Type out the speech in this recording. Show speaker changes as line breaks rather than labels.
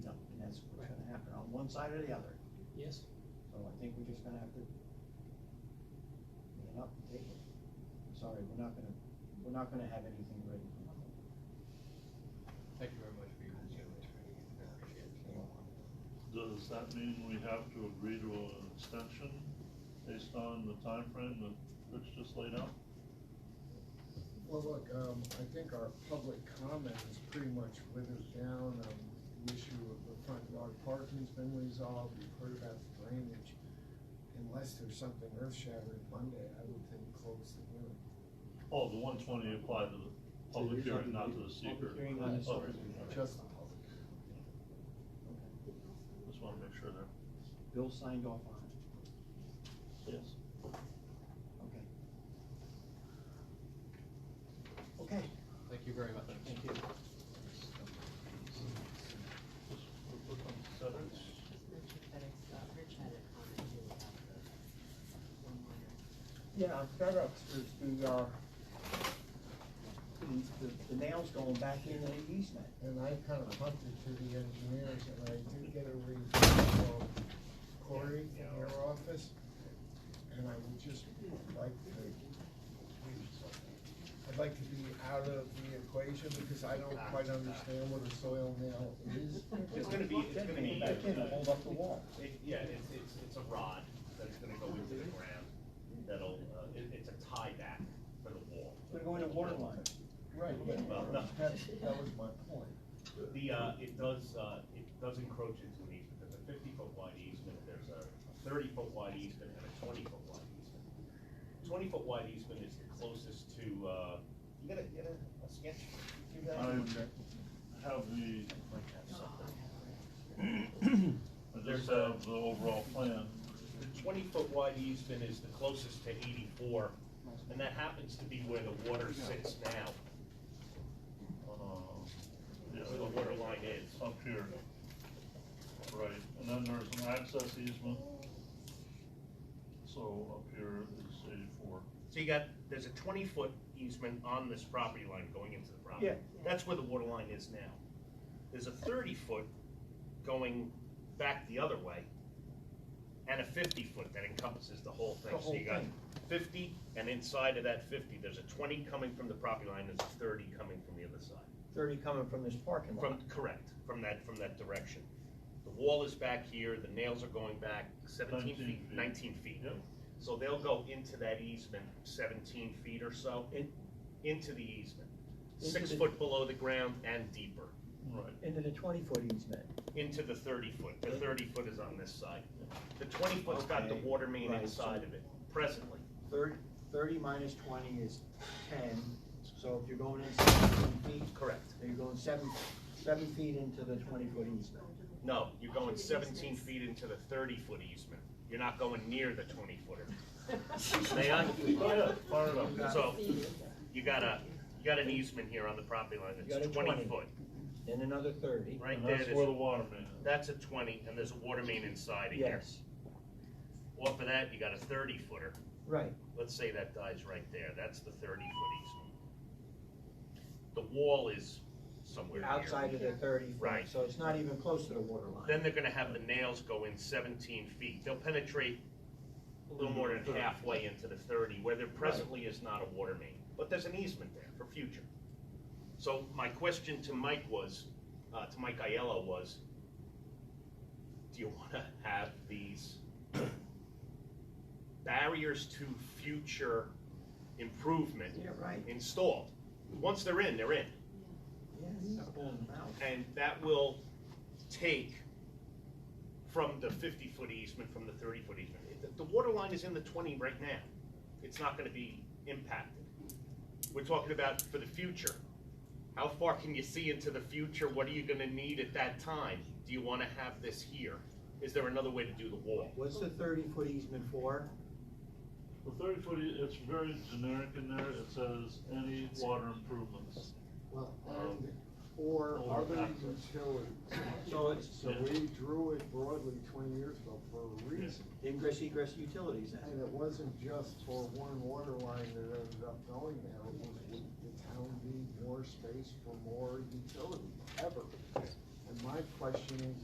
side or the other.
Yes,
So I think we're just gonna have to man up and take it. I'm Sorry, we're not gonna, we're not gonna have anything ready for Monday.
Thank you very much for your consideration. I appreciate it.
Does that mean we have to agree to an extension based on the time frame that Rich just laid out?
Well, look, um, I think our public comment is pretty much withered down, um, the issue of the front yard parking's been resolved, we've heard about the drainage. Unless there's something earth shattering Monday, I would think close the hearing.
Oh, the one twenty applied to the public hearing, not to the
Public
seeker.
hearing, not the
Okay.
Just the public.
Okay.
Just wanna make sure there.
Bill signed off on it,
Yes.
okay. Okay,
Thank you very much.
thank you.
Just mentioned that it's, uh, Rich had a comment too about the one-liner.
Yeah, I'm fed up with the, uh, the, the- the nails going back into the easement.
And I kind of hunted to the engineers, and I did get a review from Corey in their office, and I would just like to, I'd like to be out of the equation, because I don't quite understand what a soil nail is.
It's gonna be, it's gonna be.
Back in, hold up the wall.
It, yeah, it's, it's, it's a rod that is gonna go into the ground, that'll, uh, it, it's a tie back for the wall.
We're going to water line.
Right, but
Well, no.
that's, that was my point.
The, uh, it does, uh, it does encroach into an easement, there's a fifty foot wide easement, there's a thirty foot wide easement and a twenty foot wide easement. Twenty foot wide easement is the closest to, uh, you gotta, you gotta, a sketch, you
I
guys?
have the,
Might have something.
I just have the overall plan.
The twenty foot wide easement is the closest to eighty-four, and that happens to be where the water sits now. Uh,
Yeah,
Where the water line is.
Up here. Right, and then there's an access easement. So up here is eighty-four.
So you got, there's a twenty foot easement on this property line going into the property.
Yeah.
That's where the water line is now. There's a thirty foot going back the other way, and a fifty foot that encompasses the whole thing.
The
So you
whole
got
thing.
fifty, and inside of that fifty, there's a twenty coming from the property line, there's a thirty coming from the other side.
Thirty coming from this parking lot.
From, correct, from that, from that direction. The wall is back here, the nails are going back seventeen
19
feet,
feet.
nineteen feet.
Yep.
So they'll go into that easement seventeen feet or so, in, into the easement.
Into
Six
the-
foot below the ground and deeper,
Right.
Into the twenty-foot easement.
into the thirty foot. The thirty foot is on this side. The twenty foot's got the
Okay,
water main
right,
inside
so-
of it, presently.
Thirty, thirty minus twenty is ten, so if you're going in seven feet,
Correct.
then you're going seven, seven feet into the twenty-foot easement.
No, you're going seventeen feet into the thirty foot easement. You're not going near the twenty footer. May I?
Fire it up, fire it up.
So, you got a, you got an easement here on the property line
You got
that's
a 20.
twenty foot,
Then another thirty.
right
And
there,
that's where the
there's,
water main is.
that's a twenty, and there's a water main inside of here.
Yes,
Off of that, you got a thirty footer,
right,
let's say that dies right there, that's the thirty foot easement. The wall is somewhere here.
outside of the thirty foot.
Right.
So it's not even close to the water line.
Then they're gonna have the nails go in seventeen feet, they'll penetrate a little more than halfway into the thirty, where there presently is not a water main, but there's an easement there for future. So my question to Mike was, uh, to Mike Aiello was, do you wanna have these barriers to future improvement
Yeah, right.
installed? Once they're in, they're in.
Yes, I'm pulling them out.
And that will take from the fifty-foot easement, from the thirty-foot easement. The- The water line is in the twenty right now. It's not gonna be impacted. We're talking about for the future. How far can you see into the future? What are you gonna need at that time? Do you wanna have this here? Is there another way to do the wall?
What's the thirty-foot easement for?
The thirty foot, e- it's very generic in there, it says any water improvements.
Well,
Um,
or
or
other
after.
utilities.
So it's-
So we drew it broadly twenty years ago for a reason.
Ingress egress utilities then?
And it wasn't just for one water line that ended up going there, it was, would the town need more space for more utilities ever? And my question is,